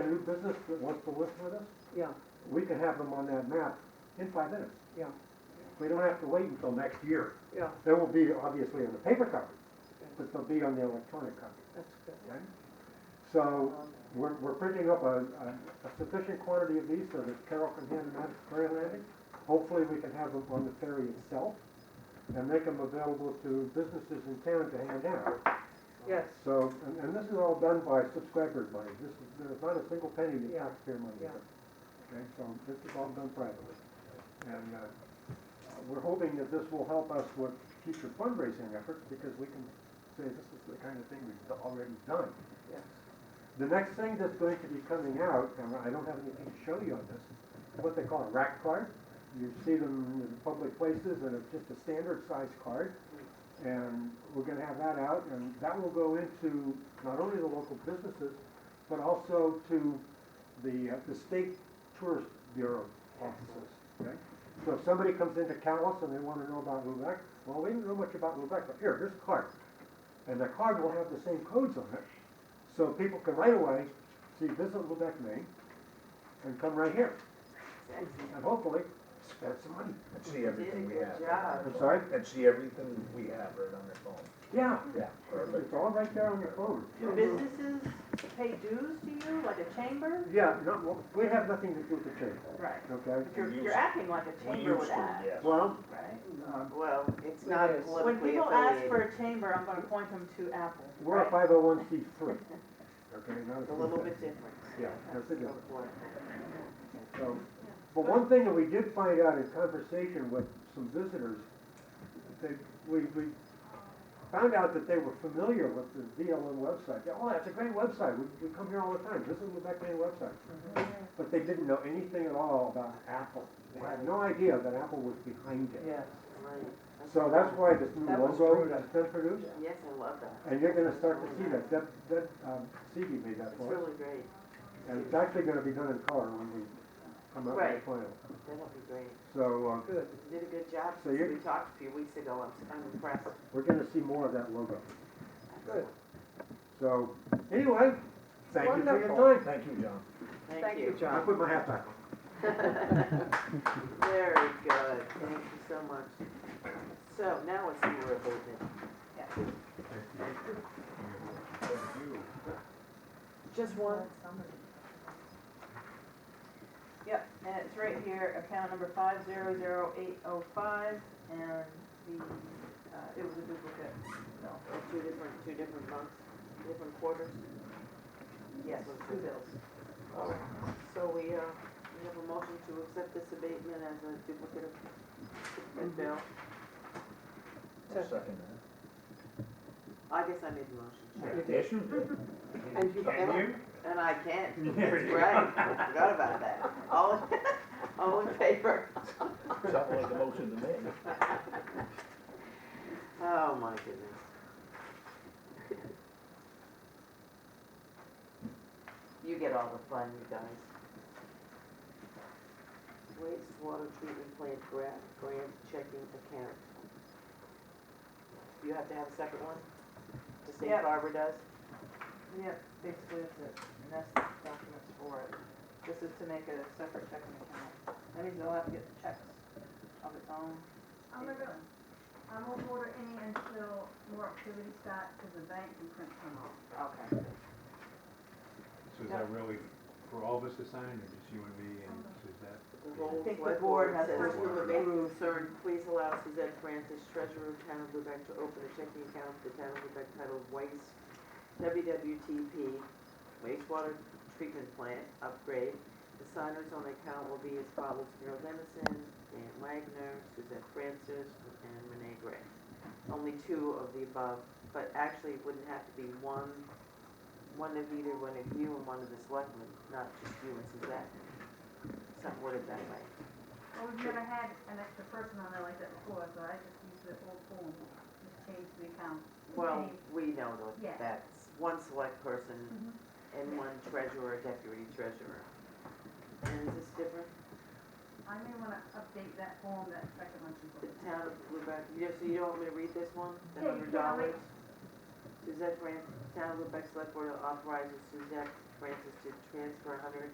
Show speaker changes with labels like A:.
A: business that wants to list with us,
B: yeah,
A: we can have them on that map in five minutes.
B: yeah,
A: We don't have to wait until next year.
B: yeah,
A: They will be obviously on the paper copy, but they'll be on the electronic copy,
B: that's good.
A: right? So we're, we're printing up a, a a sufficient quantity of these so that Carol can hand them out at ferry landing. Hopefully, we can have them on the ferry itself and make them available to businesses in town to hand out.
B: Yes,
A: So, and, and this is all done by subscriber money, this is, there's not a single penny in
B: Yeah.
A: taxpayer money.
B: Yeah.
A: Okay, so this is all done privately. And, uh, we're hoping that this will help us with future fundraising efforts, because we can say this is the kind of thing we've already done.
B: yes,
A: The next thing that's going to be coming out, and I don't have anything to show you on this, is what they call a rack card. You see them in public places, and it's just a standard size card. And we're gonna have that out, and that will go into not only the local businesses, but also to the, uh, the state tourist bureau offices, okay? So if somebody comes into Callis and they wanna know about Lubec, well, we didn't know much about Lubec, but here, here's a card. And the card will have the same codes on it, so people can right away see visit Lubec, Maine, and come right here, and hopefully spend some money.
C: And see everything we have.
D: Good job.
A: I'm sorry?
C: And see everything we have right on their phone.
A: Yeah,
C: Yeah.
A: it's all right there on your phone.
D: Do businesses pay dues to you, like a chamber?
A: Yeah, no, well, we have nothing to do with the change,
D: Right.
A: okay?
D: But you're, you're acting like a
C: We
D: chamber
C: used
D: would
C: to,
D: act,
C: yes.
A: Well, um,
D: right?
E: Well, it's not
B: It is.
E: politically
D: When
E: affiliated.
D: people ask for a chamber, I'm gonna point them to Apple.
A: we're a
D: right?
A: five oh one C three. Okay, not
D: It's a little bit different.
A: Yeah, that's a difference.
E: for.
A: So, but one thing that we did find out in conversation with some visitors, they, we, we found out that they were familiar with the VLM website. They, Oh, that's a great website, we, we come here all the time, this is the Beckman website. But they didn't know anything at all about Apple. They had no idea that Apple was behind it.
E: Yes, right.
A: So that's why this new
E: That was
A: logo
E: rude.
A: has been produced,
E: Yes, I love that.
A: and you're gonna start to see that, that, that, um, CD made that
E: It's
A: for us.
E: really great.
A: And it's actually gonna be done in color when we come up with the
E: Right.
A: final.
E: That'll be great.
A: So, uh,
B: good.
E: You did a good job
A: So
E: since
A: you're-
E: we talked a few weeks ago. I'm, I'm impressed.
A: We're gonna see more of that logo.
B: Good.
A: So, anyway, thank you for
B: Wonderful.
A: your time.
C: Thank you, John.
E: Thank you.
A: I
B: John.
A: put my hat back on.
E: Very good. Thank you so much. So now it's your abatement.
D: Just one? Yep, and it's right here, account number five zero zero eight oh five, and the, uh, it was a duplicate. No.
E: Two different, two different months, different quarters.
D: Yes, two bills.
E: All right. So we, uh, we have a motion to accept this abatement as a duplicate of the bill.
C: I'll second that.
E: I guess I made the motion. Sure.
C: Yes, you did.
E: And you-
C: Can you?
E: And I can't.
C: There
E: That's
C: you go.
E: right. I forgot about that. All, all in favor?
C: Something like a motion to make.
E: Oh, my goodness. You get all the fun, you guys. Wastewater treatment plant grant, grant checking account. You have to have a second one? The safe
D: Yep.
E: harbor does?
D: Yep, basically that's it, and that's the documents for it. This is to make a separate checking account. That means they'll have to get the checks of its own.
F: I'm gonna, I won't order any until more activity starts, because the bank can print some off.
E: Okay.
G: So is that really for all of us to sign, or just you and me, and is that?
E: The whole
D: I think the
E: select
D: board
E: board
D: has
G: to
E: says to
G: approve.
E: remain concerned, please allow Suzette Francis, treasurer of town of Lubec, to open a checking account for the town of Lubec titled Waste, WWTP, wastewater treatment plant upgrade. The signers on the account will be as follows, Carol Dennison, Dan Wagner, Suzette Francis, and Renee Gray. Only two of the above, but actually it wouldn't have to be one, one of either one of you and one of the selectmen, not just you and Suzette. Something worded that way.
F: Well, we've never had an extra person on there like that before, so I just used the old form, just changed the account.
E: Well,
F: Any-
E: we know tho-
F: Yeah.
E: that's one select person
F: Mhm.
E: and one treasurer, deputy treasurer. And is this different?
F: I may wanna update that form, that second one she
E: The
F: put.
E: town of Lubec, you, so you don't want me to read this one? The
F: Yeah, you
E: hundred
F: can, I'll
E: dollars? Suzette Fran, town of Lubec Select Board authorizes Suzette Francis to transfer hundred